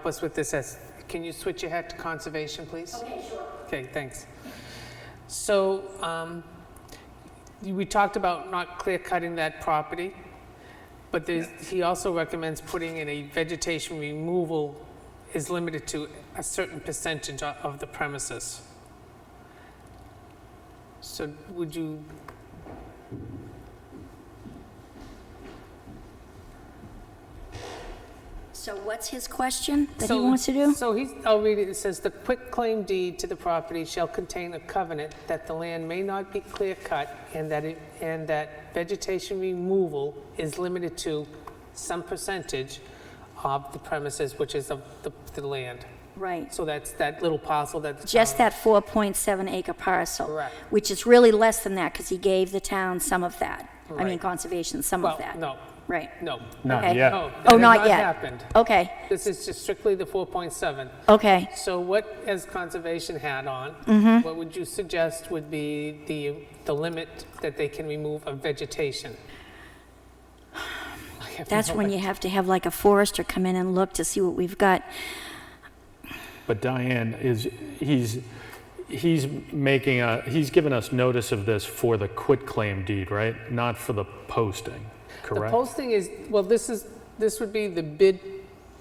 help us with this. as- Can you switch your hat to conservation, please? Okay, sure. Okay, thanks. So um, we talked about not clear cutting that property, but there's, he also recommends putting in a vegetation removal is limited to a certain percentage o- of the premises. So would you, So what's his question that he So- wants to do? So he's, I'll read it, it says, "The quitclaim deed to the property shall contain a covenant that the land may not be clear-cut and that it, and that vegetation removal is limited to some percentage of the premises, which is of the, the land." Right. So that's that little parcel that. the Just town- that 4.7 acre parcel. Correct. Which is really less than that because he gave the town some of that. I mean, Right. conservation, some Well, of that. no, Right. no. Okay. Not No, yet. that Oh, has not yet. happened. Okay, This is just strictly the 4.7. okay. So what has conservation had on? What would you suggest would be the, the limit that they can remove of vegetation? I have That's no when you have to have like a forester come in and look to see what we've got. But Diane is, he's, he's making a, he's given us notice of this for the quitclaim deed, right? Not for the posting, The correct? posting is, well, this is, this would be the bid,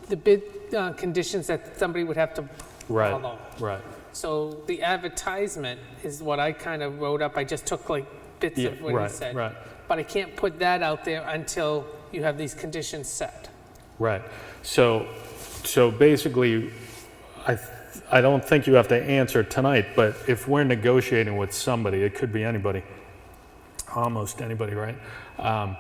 the bid uh, conditions that somebody would have to Right, follow. right. So the advertisement is what I kind of wrote up. I just took like bits Yeah, of what he right, said. right, But I can't put that out there until you have these conditions set. right. So, so basically, I, th- I don't think you have to answer tonight, but if we're negotiating with somebody, it could be anybody, almost anybody, right? Um,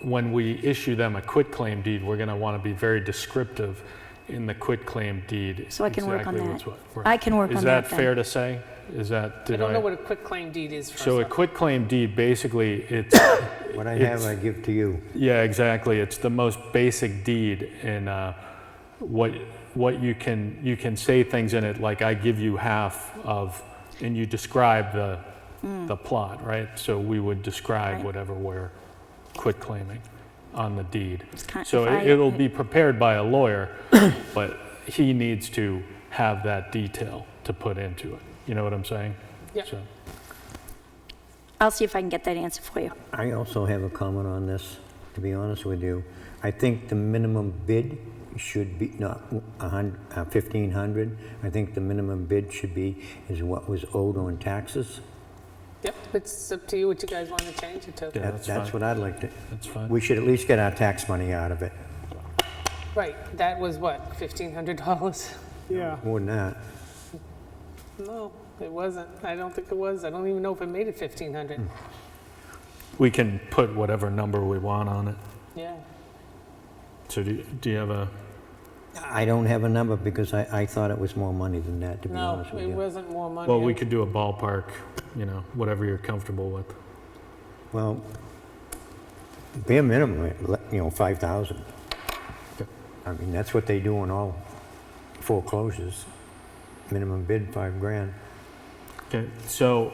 when we issue them a quitclaim deed, we're going to want to be very descriptive in the quitclaim deed. So I can work on exactly that. what's what, right. I can work Is on that that then. fair to say? Is that, I did don't know I? what a quitclaim deed is for So a something. quitclaim deed, basically, it's, What I have, It's- I give to you. yeah, exactly. It's the most basic deed in uh, what, what you can, you can say things in it, like I give you half of, and you describe the, the plot, right? So we would describe Mm. Right. whatever we're quitclaiming on the deed. kind- So if I- it- it'll be prepared by a lawyer, but he needs to have that detail to put into it. You know what I'm saying? Yeah. So- I'll see if I can get that answer for you. I also have a comment on this, to be honest with you. I think the minimum bid should be not a hun- uh, 1,500. I think the minimum bid should be is what was owed on taxes. Yep, it's up to you what you guys want to change it to. Yeah, That- that's That's fine. what I'd like to, That's fine. we should at least get our tax money out of it, Right, that was what, $1,500? Yeah, more than that. No, it wasn't. I don't think it was. I don't even know if it made it Hmm. 1,500. We can put whatever number we want on it. Yeah. So do, do you have a, I don't have a number because I, I thought it was more money than that, to be No, honest with it you. wasn't more money. well, we could do a ballpark, you know, whatever you're comfortable with. Well, bare minimum, you know, 5,000. I mean, that's what they do on all foreclosures. Minimum bid, five grand. Okay, so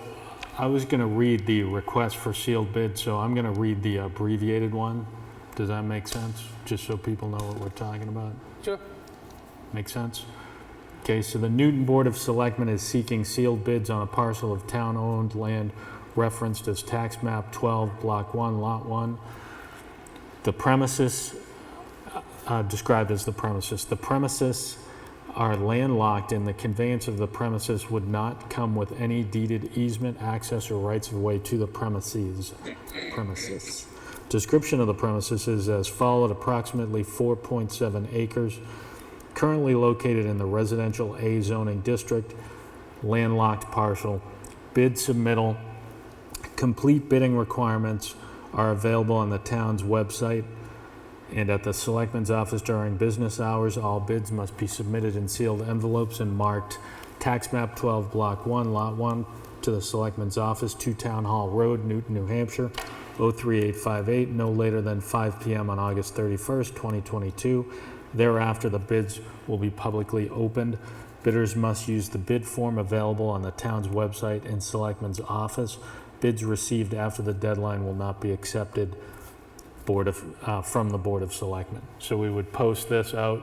I was going to read the request for sealed bid, so I'm going to read the abbreviated one. Does that make sense? Just so people know what we're talking about? Sure. Make sense? Okay, so the Newton Board of Selectmen is seeking sealed bids on a parcel of town-owned land referenced as tax map 12, block 1, lot 1. The premises, uh, described as the premises, the premises are landlocked and the conveyance of the premises would not come with any deeded easement, access, or rights of way to the premises. Premises. Description of the premises is as followed, approximately 4.7 acres currently located in the residential A zoning district, landlocked parcel, bid submittal, complete bidding requirements are available on the town's website and at the selectman's office during business hours. All bids must be submitted in sealed envelopes and marked tax map 12, block 1, lot 1, to the selectman's office, 2 Town Hall Road, Newton, New Hampshire, 03858, no later than 5 PM on August 31st, 2022. Thereafter, the bids will be publicly opened. Bidders must use the bid form available on the town's website and selectman's office. Bids received after the deadline will not be accepted. Board of, uh, from the Board of Selectmen. So we would post this out